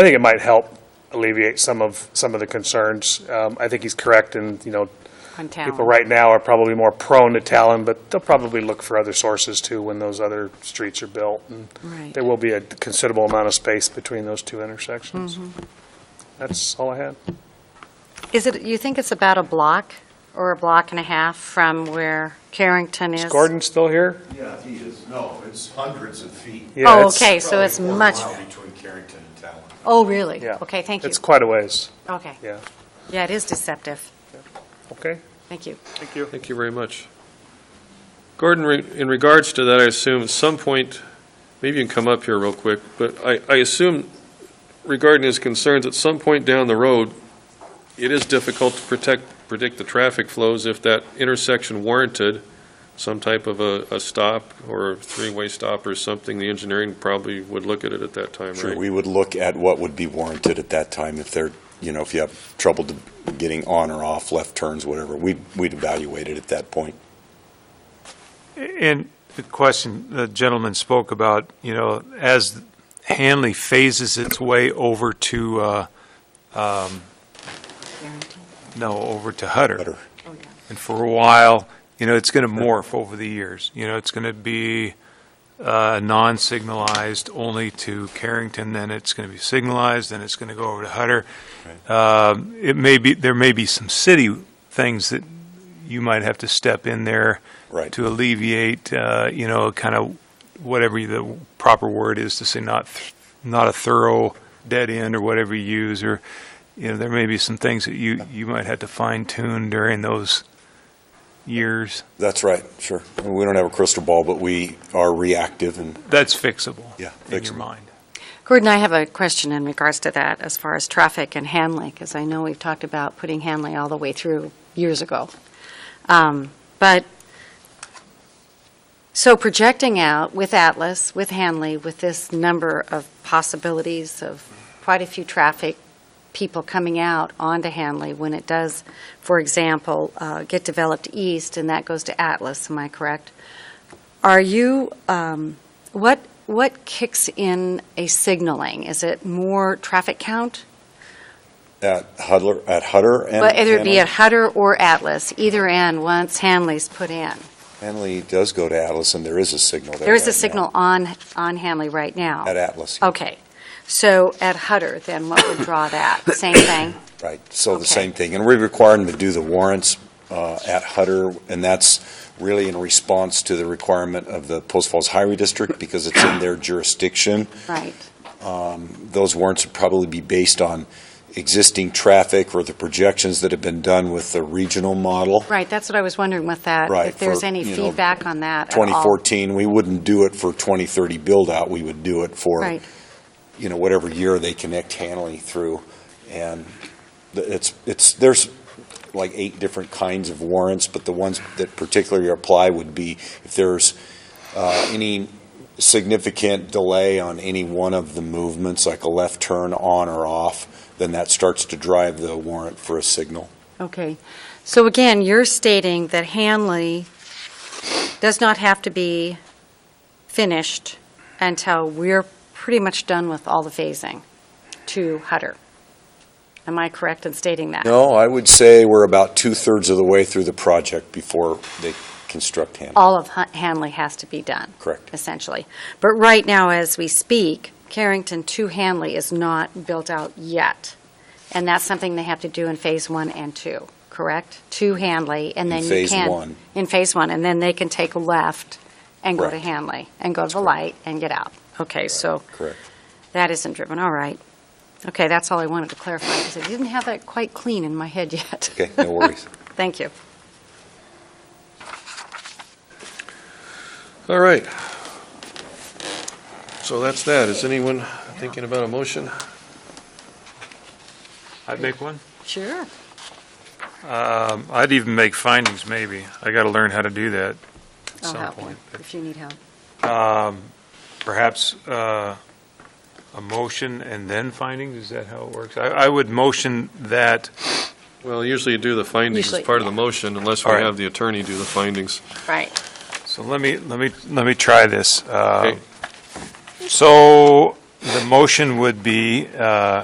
I think it might help alleviate some of, some of the concerns. Um, I think he's correct in, you know, on people talent. right now are probably more prone to Talon, but they'll probably look for other sources too when those other streets are built. and Right. There will be a considerable amount of space between those two intersections. That's all I had. Is it, you think it's about a block or a block and a half from where Carrington is? Is Gordon still here? Yeah, he is. No, it's hundreds of feet. Yeah, Oh, it's- okay, so it's Probably a much, mile Between Carrington and Talon. oh, really? Yeah. Okay, thank you. It's quite a ways, Okay. yeah. Yeah, it is deceptive. Okay, Thank you. thank you. Thank you very much. Gordon, re- in regards to that, I assume at some point, maybe you can come up here real quick, but I, I assume regarding his concerns, at some point down the road, it is difficult to protect, predict the traffic flows if that intersection warranted some type of a, a stop or a three-way stop or something, the engineering probably would look at it at that time, Sure, right? we would look at what would be warranted at that time if they're, you know, if you have trouble to- getting on or off, left turns, whatever, we'd, we'd evaluate it at that point. And the question the gentleman spoke about, you know, as Hanley phases its way over to, uh, um, no, over to Hutter. Better. Oh, And for a while, you know, it's going to morph over the years. You know, it's going to be uh, non-signalized only to Carrington, then it's going to be signalized, then it's going to go over to Hutter. Um, It may be, there may be some city things that you might have to step in there Right. to alleviate, uh, you know, kind of whatever the proper word is to say, not, th- not a thorough dead end or whatever you use, or, you know, there may be some things that you, you might have to fine tune during those years. That's right, sure. We don't have a crystal ball, but we are reactive and That's fixable. Yeah, In your fixable. mind. Gordon, I have a question in regards to that as far as traffic and Hanley, because I know we've talked about putting Hanley all the way through years ago. Um, But, so projecting out with Atlas, with Hanley, with this number of possibilities of quite a few traffic people coming out onto Hanley when it does, for example, uh, get developed east and that goes to Atlas, am I correct? Are you, um, what, what kicks in a signaling? Is it more traffic count? at Hutter, at Hutter and. Well, Either it be Hanley- at Hutter or Atlas, either end, once Hanley's put in. Hanley does go to Atlas and there is a signal there. There is a right now. signal on, on Hanley right now. At Atlas. yeah. Okay. So at Hutter, then what would draw that? Same thing? Right, so Okay. the same thing. And we require them to do the warrants uh, at Hutter, and that's really in response to the requirement of the Post Falls Highway District because it's in their jurisdiction. Right. Um, Those warrants would probably be based on existing traffic or the projections that have been done with the regional model. Right, that's what I was wondering with that. Right, If there's for, any you know, feedback on that at all. 2014, we wouldn't do it for 2030 build-out, we would do it for Right. you know, whatever year they connect Hanley through. And th- it's, it's, there's like eight different kinds of warrants, but the ones that particularly apply would be if there's uh, any significant delay on any one of the movements, like a left turn on or off, then that starts to drive the warrant for a signal. Okay. So again, you're stating that Hanley does not have to be finished until we're pretty much done with all the phasing to Hutter. Am I correct in stating that? No, I would say we're about two-thirds of the way through the project before they construct Hanley. All of Hu- Hanley has to be done, Correct. essentially. But right now, as we speak, Carrington to Hanley is not built out yet. And that's something they have to do in Phase 1 and 2, correct? To Hanley, and In then you phase can... one. in phase one, and then they can take a left and go to Correct. Hanley, and go to the light and get out. Okay, so Correct. that isn't driven, all right. Okay, that's all I wanted to clarify, because I didn't have that quite clean in my head yet. Okay, no worries. Thank you. All right. So that's that. Is anyone thinking about a motion? I'd make one? Sure. Um, I'd even make findings, maybe. I got to learn how to do that at I'll some help point. you, if you need help. Perhaps uh, a motion and then findings, is that how it works? I- I would motion that, Well, usually you do the findings as Usually, part of the yeah. motion, unless we All right. have the attorney do the findings. Right. so let me, let me, let me try this. Uh, Okay. So the motion would be, uh,